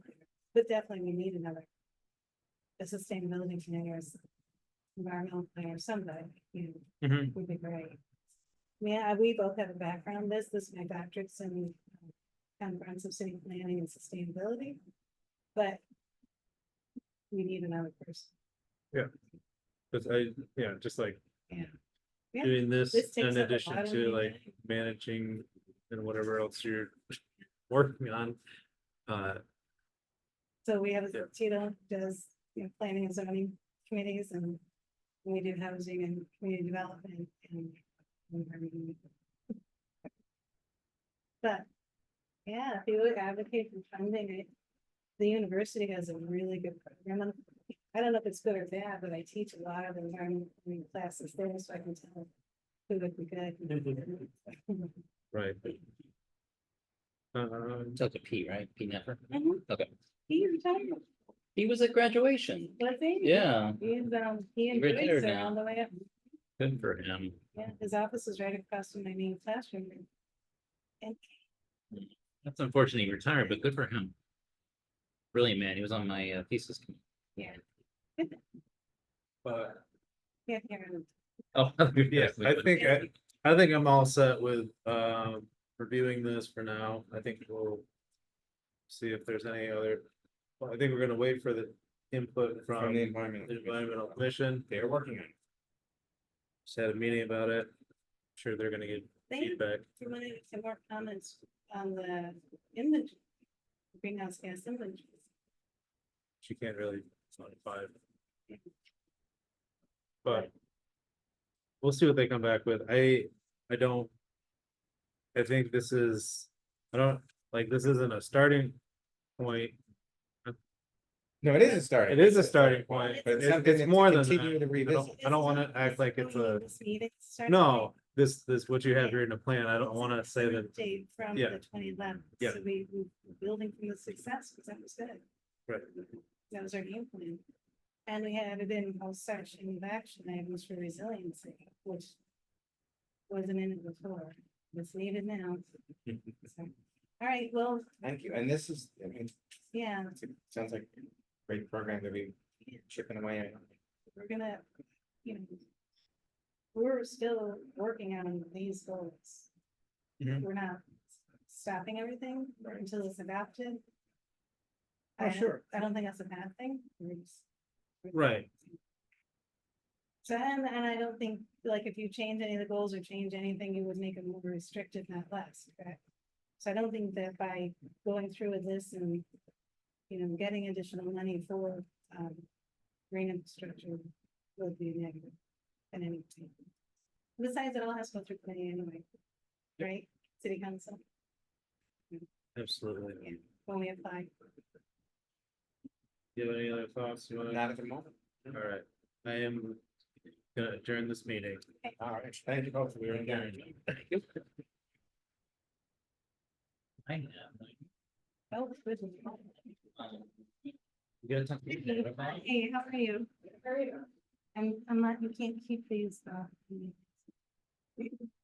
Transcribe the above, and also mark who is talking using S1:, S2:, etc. S1: But definitely we need another. A sustainability committee or s- environmental plan or somebody, you know,
S2: Mhm.
S1: would be great. Yeah, we both have a background, in this, this is my doctorate's in um, comprehensive city planning and sustainability, but. We need another person,
S2: Cause I, yeah, just like.
S1: Yeah. Yeah.
S2: Doing this
S1: This takes
S2: in
S1: up a
S2: addition
S1: lot of
S2: to
S1: my
S2: like
S1: time.
S2: managing and whatever else you're working on. Uh,
S1: so we have,
S2: Yeah.
S1: Tito does, you know, planning and zoning committees and. We do housing and community development and. environment. But, yeah, if you would advocate for funding it, the university has a really good program. on- I don't know if it's good or bad, but I teach a lot of environmental classes there, so I can tell who would be good.
S3: Mm-hmm.
S2: right. Um,
S3: Took a P, right? P Nepper.
S1: Mhm.
S3: Okay.
S1: He retired,
S3: He was at graduation.
S1: was he?
S3: Yeah,
S1: He's, um, he
S3: He retired
S1: enjoys it
S3: now.
S1: all the way up.
S3: good for him.
S1: Yeah, his office is right across from my main classroom. And
S3: That's unfortunate he retired, but good for him. Brilliant man. He was on my uh, thesis. committee.
S2: but
S1: yeah, here,
S3: Oh,
S2: uh, yeah, I think, I, I think I'm all set with, um, reviewing this for now. I think we'll. See if there's any other, well, I think we're gonna wait for the input from
S4: From the
S2: the
S4: environment.
S2: environmental commission.
S4: They're working on it.
S2: Just had a meeting about it. Sure, they're gonna get
S1: thank you
S2: feedback.
S1: for wanting some more comments on the inventory. Greenhouse gas inventory.
S2: She can't really, it's not five. But. We'll see what they come back with. I, I don't. I think this is, I don't, like, this isn't a starting point.
S4: No, it is a start.
S2: It is a starting point.
S1: But
S4: But
S2: It's,
S4: it's something
S2: it's
S4: to
S2: more than that.
S4: continue
S2: I
S4: to
S2: don't,
S4: revisit.
S2: I don't wanna act like it's a,
S1: This meeting started.
S2: no, this, this, what you have here in the plan. I don't wanna say that,
S1: Date from
S2: yeah.
S1: the twenty eleven.
S2: Yeah.
S1: So we, we we're building from the success, because that was good.
S2: Right.
S1: That was our game plan. And we had it in all section of action items for resiliency, which wasn't in it before, it's needed now. So, All right, well,
S4: Thank you. And this is, I mean,
S1: yeah,
S4: it's- it sounds like a great program to be chipping away at.
S1: we're gonna, you know, we're still working on these goals.
S4: Mhm.
S1: We're not stopping everything
S4: Right.
S1: until it's adopted.
S4: Oh,
S1: I don't-
S4: sure.
S1: I don't think that's a bad thing. We're just-
S2: right,
S1: So, and, and I don't think, like, if you change any of the goals or change anything, you would make them more restrictive, not less, correct? So I don't think that by going through with this and, you know, getting additional money for, um, green infrastructure would be negative in any way. Besides, it all has to go through committee anyway, right? City council,
S2: absolutely.
S1: Yeah. when we apply.
S2: Do you have any other thoughts? You wanna?
S4: Not at the moment.
S2: All right, I am gonna adjourn this meeting.
S4: All right. Thank you both. We are engaged.
S3: I know.
S1: Oh, good.
S3: You gotta talk to me about it.
S1: Hey, how are you? I'm, I'm not, you can't keep these, uh,